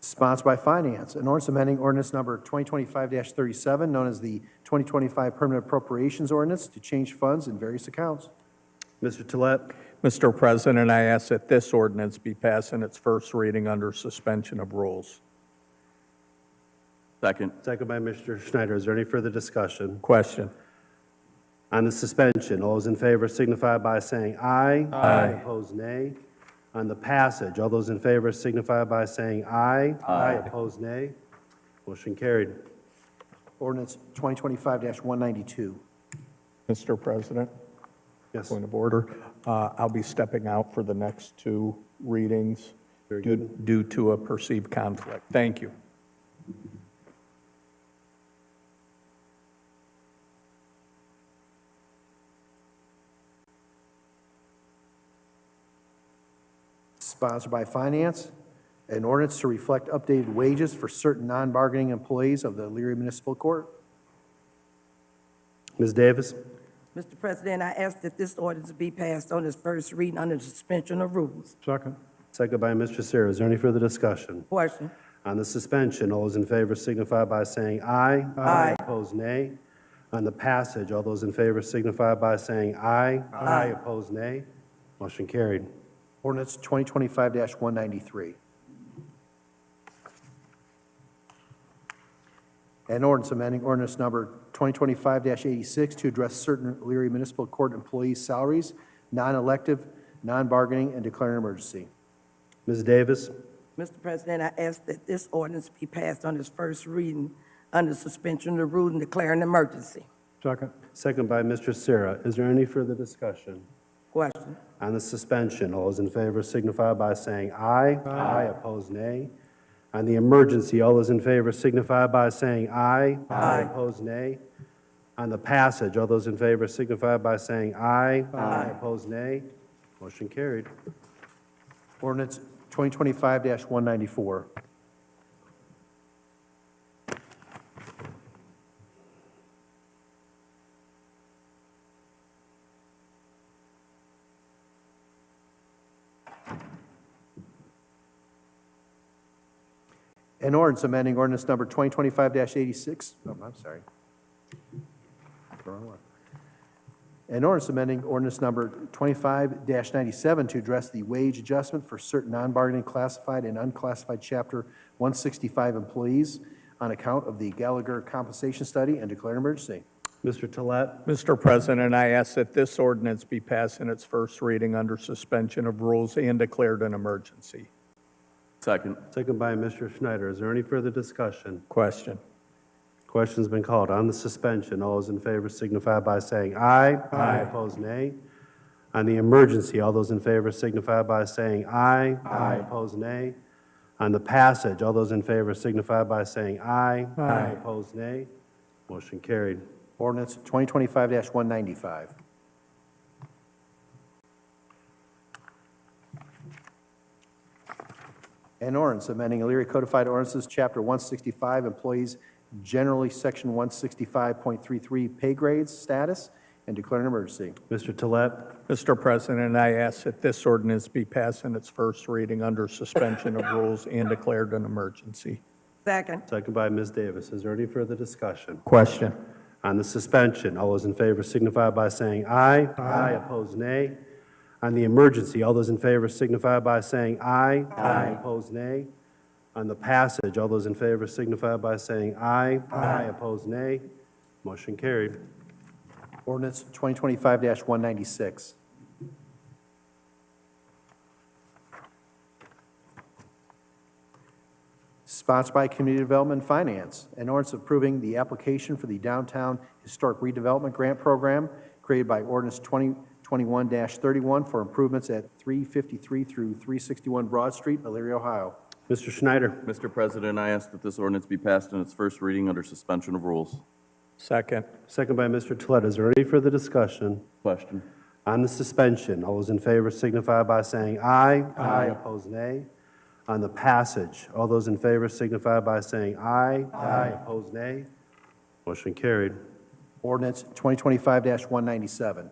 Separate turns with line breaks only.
Sponsored by Finance, an ordinance amending ordinance number 2025-37, known as the 2025 Permanent Appropriations Ordinance, to change funds in various accounts.
Mr. Tolet,
Mr. President, I ask that this ordinance be passed in its first reading under suspension of rules.
Second.
second by Mr. Schneider. Is there any further discussion?
Question.
On the suspension, all those in favor signify by saying aye. Aye. Opposed, nay. On the passage, all those in favor signify by saying aye. Aye. Opposed, nay. Motion carried.
Ordinance 2025-192.
Mr. President,
Yes.
point of order. Uh, I'll be stepping out for the next two readings
Very
due due to a perceived conflict. Thank you.
Sponsored by Finance, an ordinance to reflect updated wages for certain non-bargaining employees of the Leary Municipal Court.
Ms. Davis,
Mr. President, I ask that this ordinance be passed on its first reading under suspension of rules.
second by Mr. Sarah. Is there any further discussion?
Question.
On the suspension, all those in favor signify by saying aye.
Aye.
Opposed, nay. On the passage, all those in favor signify by saying aye. Aye. Opposed, nay. Motion carried.
Ordinance 2025-193. An ordinance amending ordinance number 2025-86 to address certain Leary Municipal Court employees' salaries, non-elective, non-bargaining, and declaring emergency.
Ms. Davis,
Mr. President, I ask that this ordinance be passed on its first reading under suspension of rules and declaring an emergency.
second by Mr. Sarah. Is there any further discussion?
Question.
On the suspension, all those in favor signify by saying aye. Aye. Opposed, nay. On the emergency, all those in favor signify by saying aye. Aye. Opposed, nay. On the passage, all those in favor signify by saying aye. Aye. Opposed, nay. Motion carried.
Ordinance 2025-194. An ordinance amending ordinance number 2025-86, oh, I'm sorry. Wrong one. An ordinance amending ordinance number 25-97 to address the wage adjustment for certain non-bargaining classified and unclassified Chapter 165 employees on account of the Gallagher compensation study and declare an emergency.
Mr. Tolet,
Mr. President, I ask that this ordinance be passed in its first reading under suspension of rules and declared an emergency.
Second.
second by Mr. Schneider. Is there any further discussion?
Question.
Question's been called. On the suspension, all those in favor signify by saying aye. Aye. Opposed, nay. On the emergency, all those in favor signify by saying aye. Aye. Opposed, nay. On the passage, all those in favor signify by saying aye. Aye. Opposed, nay. Motion carried.
Ordinance 2025-195. An ordinance amending Elyria Codified Ordinances, Chapter 165, Employees Generally, Section 165.33, Pay Grades Status, and declare an emergency.
Mr. Tolet,
Mr. President, I ask that this ordinance be passed in its first reading under suspension of rules and declared an emergency.
Second.
second by Ms. Davis. Is there any further discussion?
Question.
On the suspension, all those in favor signify by saying aye. Aye. Opposed, nay. On the emergency, all those in favor signify by saying aye. Aye. Opposed, nay. On the passage, all those in favor signify by saying aye. Aye. Opposed, nay. Motion carried.
Ordinance 2025-196. Sponsored by Community Development and Finance, an ordinance approving the application for the Downtown Historic Redevelopment Grant Program created by ordinance 2021-31 for improvements at 353 through 361 Broad Street, Elyria, Ohio.
Mr. Schneider,
Mr. President, I ask that this ordinance be passed in its first reading under suspension of rules.
Second.
second by Mr. Tolet. Is there any further discussion?
Question.
On the suspension, all those in favor signify by saying aye. Aye. Opposed, nay. On the passage, all those in favor signify by saying aye. Aye. Opposed, nay. Motion carried.
Ordinance 2025-197.